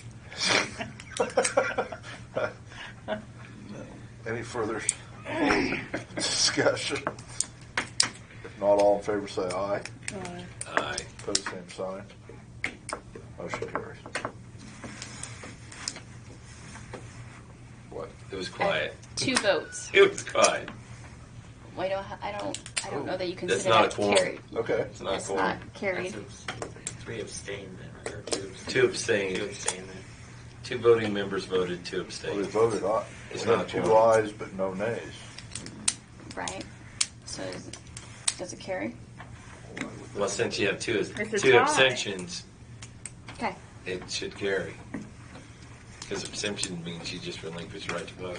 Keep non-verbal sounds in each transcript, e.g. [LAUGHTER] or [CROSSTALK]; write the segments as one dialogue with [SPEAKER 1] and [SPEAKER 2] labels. [SPEAKER 1] [LAUGHS] Any further discussion? If not, all in favor say aye.
[SPEAKER 2] Aye.
[SPEAKER 3] Aye.
[SPEAKER 1] Pose same sign. Motion carries.
[SPEAKER 3] What? It was quiet.
[SPEAKER 4] Two votes.
[SPEAKER 3] It was quiet.
[SPEAKER 4] Wait, I don't, I don't, I don't know that you
[SPEAKER 3] That's
[SPEAKER 4] consider
[SPEAKER 3] not a
[SPEAKER 4] that
[SPEAKER 3] quorum.
[SPEAKER 4] carried.
[SPEAKER 1] Okay.
[SPEAKER 3] It's not
[SPEAKER 4] That's
[SPEAKER 3] going.
[SPEAKER 4] not carried.
[SPEAKER 5] That's a- Three abstained then, or two abstained.
[SPEAKER 3] Two abstained.
[SPEAKER 5] Two abstained then.
[SPEAKER 3] Two voting members voted, two
[SPEAKER 1] Well, we
[SPEAKER 3] abstained.
[SPEAKER 1] voted aye.
[SPEAKER 3] It's
[SPEAKER 1] We had
[SPEAKER 3] not
[SPEAKER 1] two
[SPEAKER 3] quorum.
[SPEAKER 1] ayes, but no nays.
[SPEAKER 4] Right. So is, does it carry?
[SPEAKER 3] Well, since you have two,
[SPEAKER 2] It's a
[SPEAKER 3] two
[SPEAKER 2] tie.
[SPEAKER 3] abstentions,
[SPEAKER 4] Okay.
[SPEAKER 3] it should carry. Because abstention means you just relinquish your right to vote.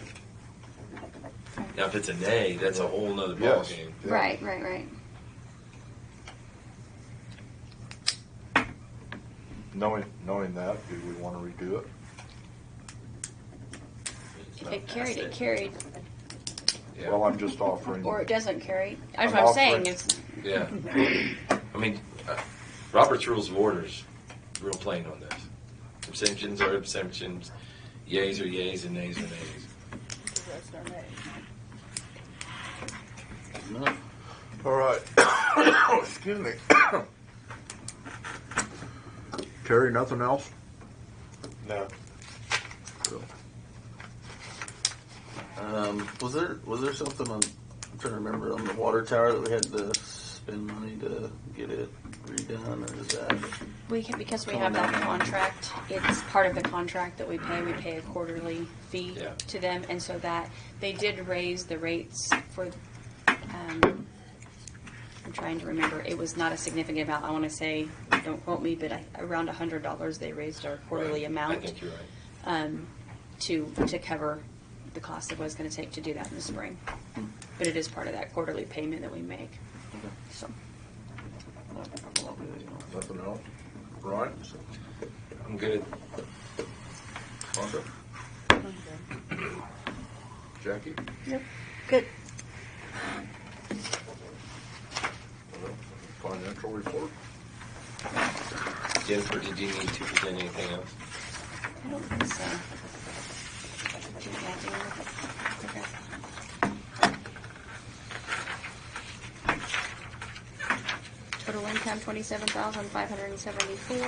[SPEAKER 3] Now, if it's a nay, that's a whole nother
[SPEAKER 1] Yes.
[SPEAKER 3] ballgame.
[SPEAKER 1] Yeah.
[SPEAKER 4] Right, right, right.
[SPEAKER 1] Knowing, knowing that, do we want to redo it?
[SPEAKER 4] If it carried, it carried.
[SPEAKER 3] Yeah.
[SPEAKER 1] Well, I'm just offering.
[SPEAKER 4] Or it doesn't carry.
[SPEAKER 1] I'm
[SPEAKER 4] That's what I'm
[SPEAKER 1] offering-
[SPEAKER 4] saying. It's,
[SPEAKER 3] Yeah. I mean, uh, Robert's Rules of Orders, real plain on this. Abstentions are abstentions, yays are yays, and nays are nays.
[SPEAKER 1] All right. [COUGHS] Excuse me. [COUGHS] Terry, nothing else?
[SPEAKER 6] No.
[SPEAKER 7] Um, was there was there something on? I'm trying to remember on the water tower that we had to spend money to get it redone, or is that?
[SPEAKER 4] we can, because we have that contract, it's part of the contract that we pay. We pay a quarterly fee
[SPEAKER 3] Yeah.
[SPEAKER 4] to them. And so that, they did raise the rates for, um, I'm trying to remember. It was not a significant amount. I want to say, don't quote me, but I, around a hundred dollars they raised our quarterly
[SPEAKER 3] Right.
[SPEAKER 4] amount.
[SPEAKER 3] I think you're right.
[SPEAKER 4] um, to, to cover the cost that it was going to take to do that in the spring. But it is part of that quarterly payment that we make, so.
[SPEAKER 7] Not- not really, you know.
[SPEAKER 1] Nothing else? Right?
[SPEAKER 3] I'm good.
[SPEAKER 1] Jackie?
[SPEAKER 2] Yep. Good.
[SPEAKER 1] Financial report?
[SPEAKER 3] Jennifer, did you need to present anything else?
[SPEAKER 4] I don't think so. Do you have any- okay. Total income, twenty-seven thousand, five hundred and seventy-four.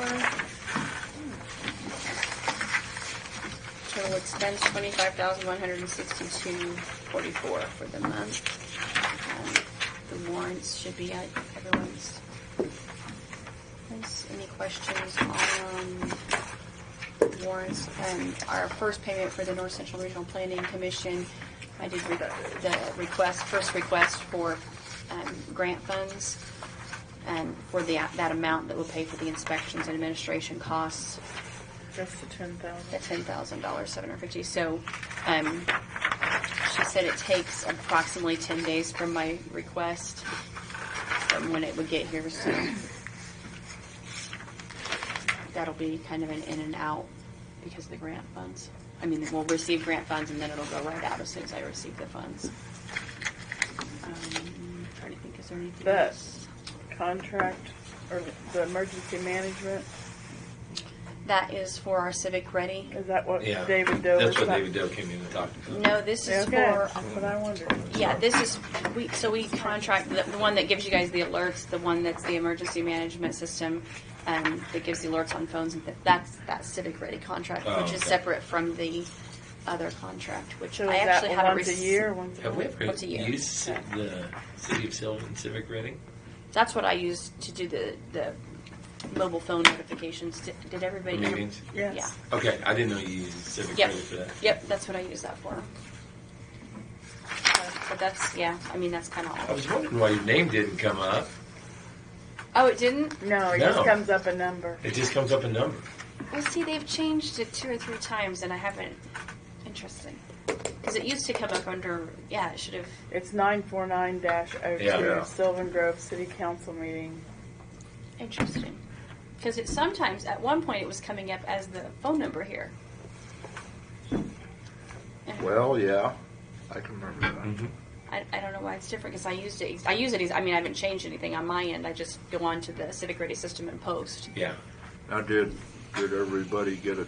[SPEAKER 4] Total expense, twenty-five thousand, one hundred and sixty-two, forty-four for the month. Um, The warrants should be at everyone's. place. Any questions on, um, warrants. Um, our first payment for the North Central Regional Planning Commission, I did re- the request, first request for um, grant funds um, for the, that amount that will pay for the inspections and administration costs,
[SPEAKER 2] That's the ten
[SPEAKER 4] the
[SPEAKER 2] thousand.
[SPEAKER 4] ten thousand dollars, seven hundred fifty. So, um, she said it takes approximately ten days from my request from when it would get here. So that'll be kind of an in and out because of the grant funds. I mean, we'll receive grant funds and then it'll go right out as soon as I receive the funds. Um, trying to think, is there anything
[SPEAKER 2] That-
[SPEAKER 4] else?
[SPEAKER 2] Contract or the emergency management,
[SPEAKER 4] That is for our Civic Ready.
[SPEAKER 2] is that what
[SPEAKER 3] Yeah.
[SPEAKER 2] David Doe was
[SPEAKER 3] That's what
[SPEAKER 2] talking?
[SPEAKER 3] David Doe came in and talked about.
[SPEAKER 4] No, this is
[SPEAKER 2] Okay,
[SPEAKER 4] for um,
[SPEAKER 2] that's what I wondered.
[SPEAKER 4] Yeah, this is, we, so we contract, the the one that gives you guys the alerts, the one that's the emergency management system, um, that gives the alerts on phones, and th- that's, that Civic Ready contract,
[SPEAKER 3] Oh,
[SPEAKER 4] which is
[SPEAKER 3] okay.
[SPEAKER 4] separate from the other contract, which
[SPEAKER 2] So
[SPEAKER 4] I
[SPEAKER 2] is that
[SPEAKER 4] actually haven't
[SPEAKER 2] once a year,
[SPEAKER 4] received.
[SPEAKER 2] once a
[SPEAKER 3] Have we
[SPEAKER 2] month?
[SPEAKER 3] ever
[SPEAKER 4] Once a year.
[SPEAKER 3] used ci- the City of Sylvan Civic Ready?
[SPEAKER 4] That's what I used to do the, the mobile phone notifications. Did- Did everybody? ever-
[SPEAKER 3] Meetings?
[SPEAKER 4] Yeah.
[SPEAKER 2] Yes.
[SPEAKER 3] Okay, I didn't know you used Civic
[SPEAKER 4] Yep.
[SPEAKER 3] Ready for that.
[SPEAKER 4] Yep, that's what I use that for. So- But that's, yeah, I mean, that's kind of
[SPEAKER 3] I
[SPEAKER 4] all.
[SPEAKER 3] was wondering why your name didn't come up.
[SPEAKER 4] Oh, it didn't?
[SPEAKER 2] No, it
[SPEAKER 3] No.
[SPEAKER 2] just comes up a number.
[SPEAKER 3] It just comes up a number.
[SPEAKER 4] Well, see, they've changed it two or three times, and I haven't. Interesting. Because it used to come up under. Yeah, it should have.
[SPEAKER 2] It's nine four nine dash oh
[SPEAKER 3] Yeah.
[SPEAKER 2] two
[SPEAKER 3] Yeah.
[SPEAKER 2] Sylvan Grove City Council meeting.
[SPEAKER 4] Interesting. Because it sometimes, at one point, it was coming up as the phone number here. And
[SPEAKER 1] Well, yeah, Mm-hmm. I can remember
[SPEAKER 2] Mm-hmm.
[SPEAKER 1] that.
[SPEAKER 4] I, I don't know why it's different because I used it. I use it. ex- I mean, I haven't changed anything on my end. I just go on to the Civic Ready system and post.
[SPEAKER 3] Yeah.
[SPEAKER 1] Now, did, did everybody get a